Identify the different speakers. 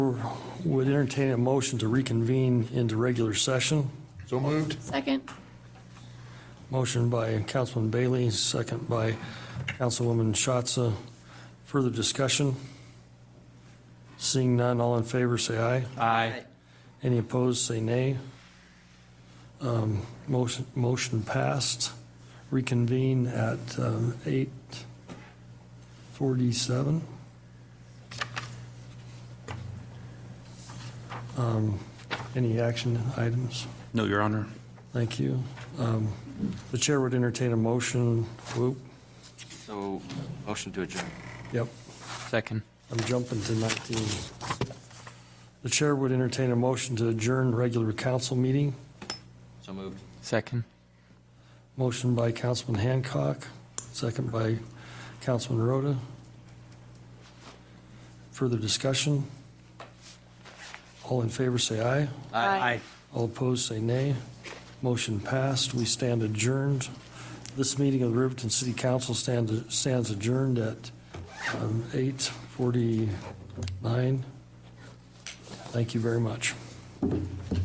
Speaker 1: Would entertain a motion to reconvene into regular session.
Speaker 2: So moved.
Speaker 3: Second.
Speaker 1: Motion by Councilman Bailey, second by Councilwoman Schatz. Further discussion? Seeing none, all in favor, say aye.
Speaker 4: Aye.
Speaker 1: Any opposed, say nay. Um, Motion, motion passed. Reconvene at um, 8:47. Um, Any action items?
Speaker 4: No, Your Honor.
Speaker 1: Thank you. Um, The chair would entertain a motion. Whoop,
Speaker 5: So, motion to adjourn.
Speaker 1: yep,
Speaker 4: Second.
Speaker 1: I'm jumping to 19. The chair would entertain a motion to adjourn regular council meeting.
Speaker 5: So moved.
Speaker 4: Second.
Speaker 1: Motion by Councilman Hancock, second by Councilman Rhoda. Further discussion? All in favor, say aye.
Speaker 4: Aye.
Speaker 1: All opposed, say nay. Motion passed. We stand adjourned. This meeting of the Riverton City Council stand- stands adjourned at um, 8:49. Thank you very much.